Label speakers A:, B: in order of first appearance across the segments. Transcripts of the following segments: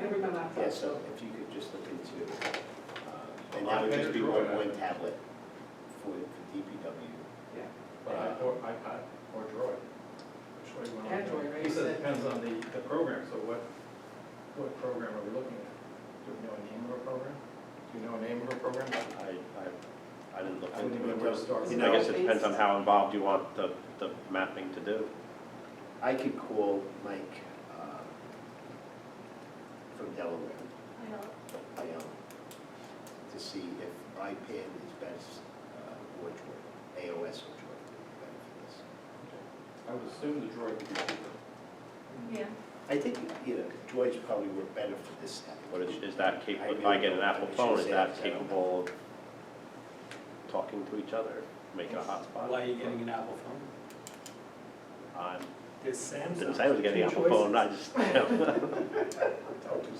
A: Yeah, so if you could just look into, uh, and
B: A lot
A: that would
B: better
A: just be
B: drawing.
A: one, one tablet for the DPW.
B: Or i- or iPad, or Droid. Which way you want to go.
C: Android, right,
B: He said
C: you said.
B: it depends on the, the program, so what, what program are we looking at? Do we know a name of a program? Do you know a name of a program?
D: I, I, I didn't look
B: I wouldn't
D: into
B: even
D: it.
B: know where to start.
C: You
D: I guess it depends on how involved you want the, the mapping to do.
A: I could call Mike uh, from Delaware,
E: I don't,
A: I am, to see if iPad is best uh, or Droid, AOS or Droid would be better for this.
B: I would assume the Droid would be cheaper.
E: yeah,
A: I think, you know, Droids probably work better for this app.
D: But is, is that
A: I
D: capable, if I
A: really
D: get an
A: don't-
D: Apple
A: I should
D: phone, is
A: say
D: that
A: that, I don't know.
D: capable of talking to each other, make a hotspot?
F: Why are you getting an Apple phone?
D: I'm,
F: This Samsung.
D: didn't say I was getting an
F: Two
D: Apple phone,
F: choices.
D: I just, you know.
A: Don't do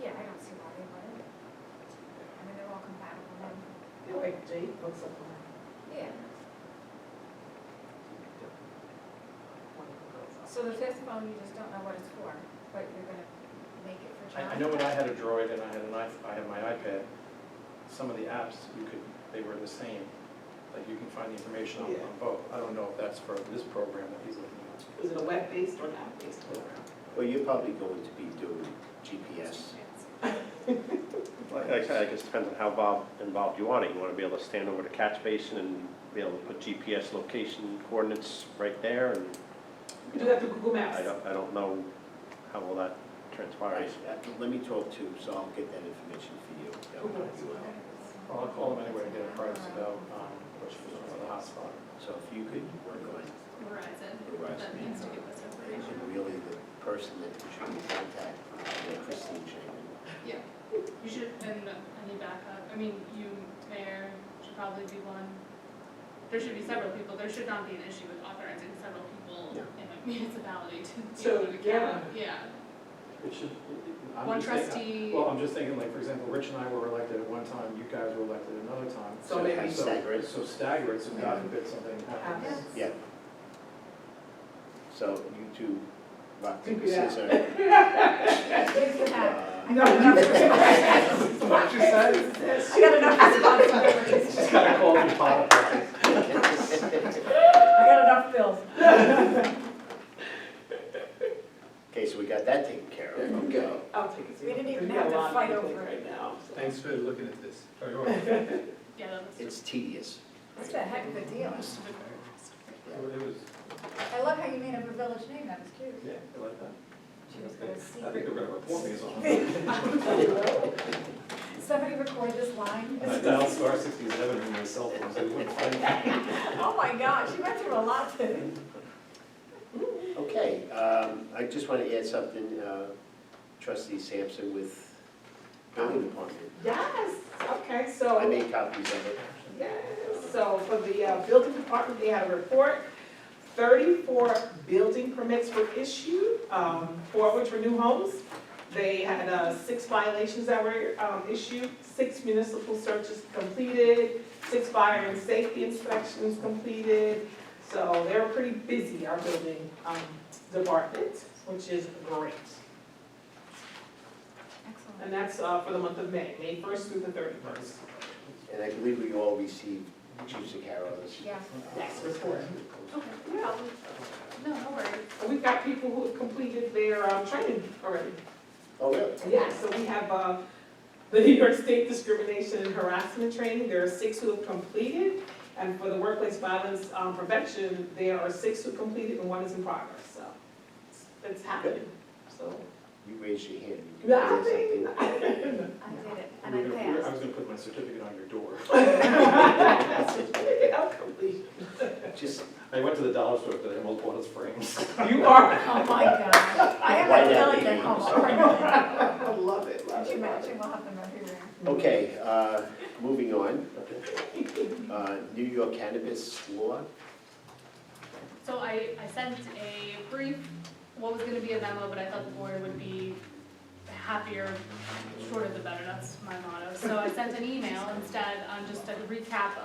E: yeah, I don't see why they would. I mean, they're all compatible then.
C: They're like Jake, what's up
E: Yeah.
A: that.
C: with
E: So the fifth phone, you just don't know what it's for, but you're gonna make it for
B: I,
E: child.
B: I know when I had a Droid and I had an i, I had my iPad, some of the apps, you could, they were the same. Like you can find the information on
C: Yeah.
B: on both. I don't know if that's for this program that he's looking at.
C: that? Is it a web-based or an app-based program?
A: Well, you're probably going to be doing GPS.
D: Like I said, I guess it depends on how involved, involved you want it. You wanna be able to stand over the catch basin and be able to put GPS location coordinates right there, and
C: You do that through Google Maps.
D: I don't, I don't know how all
A: All
D: that
A: right,
D: transpires.
A: uh, let me talk to, so I'll get that information for you. That would help you out.
B: Well, I'll call him anyway to get a price about, um, which was for the hotspot.
A: So if you could work on it,
E: Verizon,
A: Verizon.
E: that needs to give us information.
A: and really the person that you should contact, uh, Christine Shaman.
G: Yeah, you should, and any backup, I mean, you, mayor, should probably be one. There should be several people, there should not be an issue with authorizing several people
A: Yeah.
G: in a municipality to.
C: To,
G: be on an account.
B: It should, it-
G: Yeah,
B: I'm
G: one
B: just thinking-
G: trustee,
B: Well, I'm just thinking, like, for example, Rich and I were elected at one time, you guys were elected another time.
C: So maybe
B: so-
A: stagger it.
B: So stagger it, so God forbid something happens.
C: Apps.
A: Yeah. So you two, rock,
C: Think
A: paper,
C: we have-
A: scissors.
E: You can have,
A: Uh,
C: No, you. What you said?
E: I got enough responsibilities.
B: Just gotta call me Potiphar.
C: I got enough bills.
A: Okay, so we got that taken care of. Okay.
C: I'll take it.
E: We didn't even
C: There's
E: have
C: a
E: to
C: lot of
E: fight
C: people
E: over it.
C: Right now. so.
B: Thanks for looking at this. Oh, you're welcome.
G: yeah, that was.
A: It's tedious.
E: That's a heck of a deal.
G: Must have been very fast.
B: It was,
E: I love how you made up a village name, that was cute.
B: yeah, I like that.
E: She was gonna see.
B: I think they're gonna report me as well.
E: Somebody record this line.
B: I dialed star sixty-seven on my cell phone, so they wouldn't find me.
E: Oh my gosh, you went through a lot today.
A: Okay, um, I just want to add something, uh, trustee Sampson with building department.
C: Yes, okay, so.
A: I made copies of it.
C: Yes, so for the uh, building department, they had a report, thirty-four building permits were issued, um, four of which were new homes. They had, uh, six violations that were, um, issued, six municipal searches completed, six fire and safety inspections completed. So they were pretty busy, our building, um, department, which is great. And
E: Excellent.
C: that's, uh, for the month of May, May first through the thirty-first.
A: And I believe we all received Chief Sakaro's.
E: Yeah.
C: That's report.
G: Okay,
C: Yeah,
G: no, no worries.
C: And We've got people who have completed their um, training already.
A: Oh, really?
C: Yeah, so we have uh, the New York State Discrimination and Harassment Training, there are six who have completed. And for the workplace violence um, prevention, there are six who completed and one is in progress, so it's happening. So,
A: You raised your hand. You can
C: yeah, I
A: say
C: think-
A: something.
E: I did it,
B: We
E: and I
B: were gonna- we were- I
E: passed.
B: was gonna put my certificate on your door.
C: Certificate of completion.
A: Just,
B: I went to the dollar store, but I had multiple of those frames.
C: You are,
E: Oh my gosh, I have
A: Why
E: a oh
A: not
E: million at
A: be
E: home.
C: I love it, love
E: Could you
C: it, love
E: imagine,
C: it.
E: we'll have them everywhere.
A: okay, uh, moving on. Uh, New York cannabis law.
G: So I, I sent a brief, what was gonna be a memo, but I thought the board would be happier, shorter the better, that's my motto. So I sent an email instead on um, just a recap of.